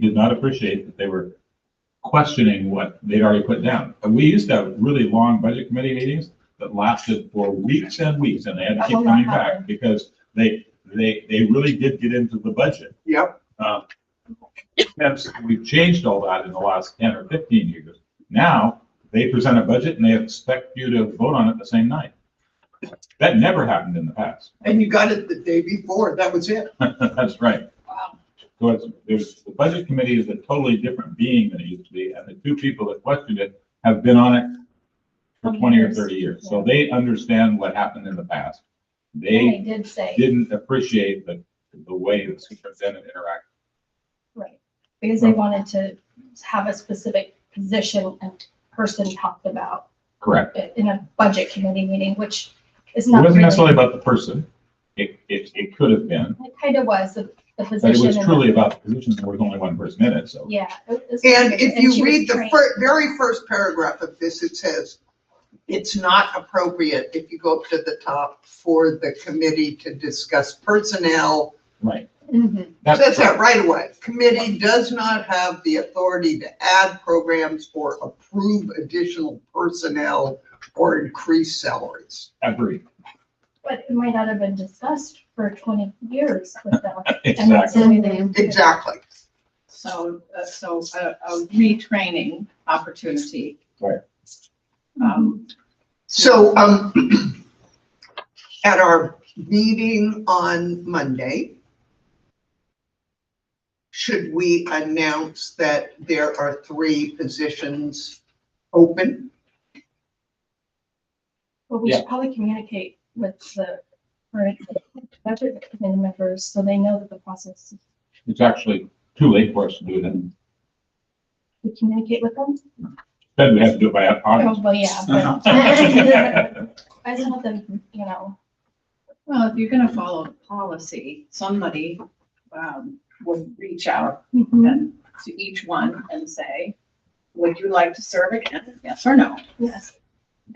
He did not appreciate that they were questioning what they'd already put down. And we used to have really long budget committee meetings that lasted for weeks and weeks, and they had to That keep will not coming back happen. because they, they, they really did get into the budget. Yep. Uh, Hence, we've changed all that in the last ten or fifteen years. Now, they present a budget and they expect you to vote on it the same night. That never happened in the past. And you got it the day before, that was it. That's right. Wow. So it's, there's, the budget committee is a totally different being than it used to be, and the two people that questioned it have been on it for Twenty twenty or years. thirty years, so they understand what happened in the past. And They they did say, didn't appreciate the, the way the superintendent interacted. right, because they wanted to have a specific position and person talked about Correct. it in a budget committee meeting, which is It not wasn't necessarily really. about the person, it, it, it could have been, It kind of was, the the but it position. was and- truly about the position, there was only one person in it, so. Yeah. it was- And if she you was read the trained. fir- very first paragraph of this, it says, it's not appropriate if you go up to the top for the committee to discuss personnel. Right. Mhm. That's Says correct. that right away. Committee does not have the authority to add programs or approve additional personnel or increase salaries. Agreed. But it might not have been discussed for twenty years without. and that's Exactly. the way they- Exactly. So, uh, so a, a retraining opportunity. Right. Mm-hmm. Um, So, um, at our meeting on Monday, should we announce that there are three positions open? Well, we Yeah. should probably communicate with the current budget committee members so they know that the process, It's actually too late for us to do it, and we communicate with them. then we have to do it by August. Oh, well, yeah. but- Right, I just want them, you know, well, if you're gonna follow the policy, somebody, um, would reach out Mm-hmm. and to each one and say, would you like to serve again? Yes or no? yes.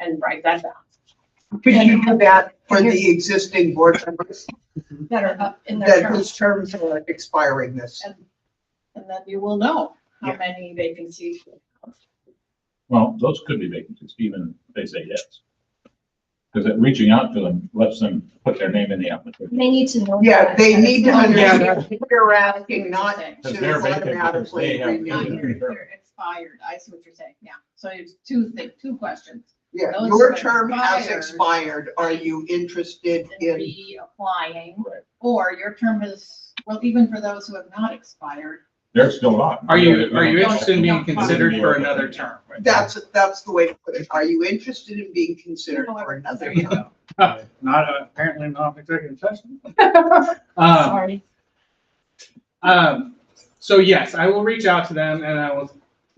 And write that down. Could you do that for the existing board members that are up in their that terms. whose terms are expiring this? And, and then you will know how Yeah. many vacancies. Well, those could be vacancies, even if they say yes. Because reaching out to them lets them put their name in the application. They need to know. Yeah, that. they need to Yeah. understand we're asking not They're Because they're to vacant, because they automatically have- renew. expired. I see what you're saying. Yeah. So it's two things, two questions. Yeah, Those your that term has expired. expired. Are you interested and in reapplying, Right. or your term is, well, even for those who have not expired. They're still on. Are you, are you Yeah. interested in being Yeah. considered for another term? That's, that's the way to put it. Are you interested in being considered Or- for another? There you go. Not, apparently not executive session. Um, Sorry. um, so yes, I will reach out to them and I will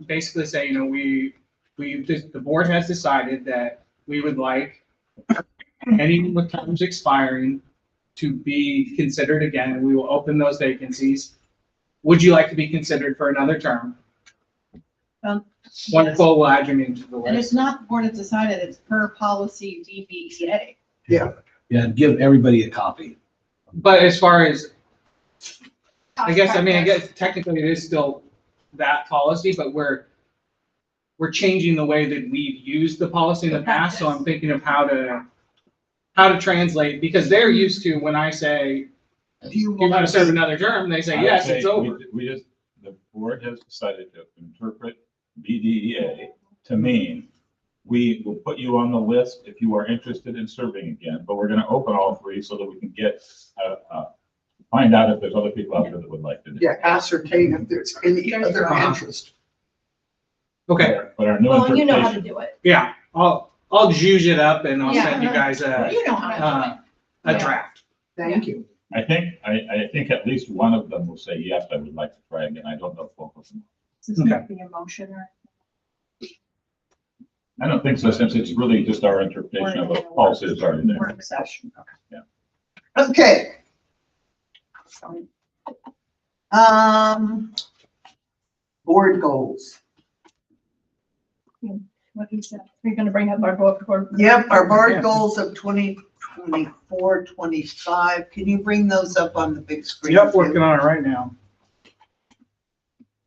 basically say, you know, we, we, the board has decided that we would like anyone with terms expiring to be considered again, and we will open those vacancies. Would you like to be considered for another term? Um, Wonderful, we'll add your name to the And it's list. not the board has decided, it's per policy E DBA. Yeah, give everybody a copy. But as far as I guess, I mean, I guess technically it is still that policy, but we're, we're changing the way that we've used the policy in the past, so I'm thinking of how to, how to translate, because they're used to, when I say, Do you you want want to serve to? another term, they I say, would yes, say it's over. we- We just, the board has decided to interpret BDEA to mean, we will put you on the list if you are interested in serving again, but we're going to open all three so that we can get, uh, uh, find out if there's other people out there that would like to do it. Yeah, ascertain if there's any other Uh-huh. interest. Okay, But our new Well, you know how to interpretation, do it. yeah, I'll, I'll juice it up and I'll Yeah. send you guys a, You know how uh, to a draft. Thank you. I think, I, I think at least one of them will say, yes, I would like to try again. I don't know if both of them. do it. This is not the emotion or. I don't think so, since it's really just our interpretation of what policy is already there. Work session, okay. Okay, um, board goals. What you said, you're gonna bring up our board report. Yep, our board goals of 2024, 25. Can you bring those up on the big screen? Yep, working on it right now.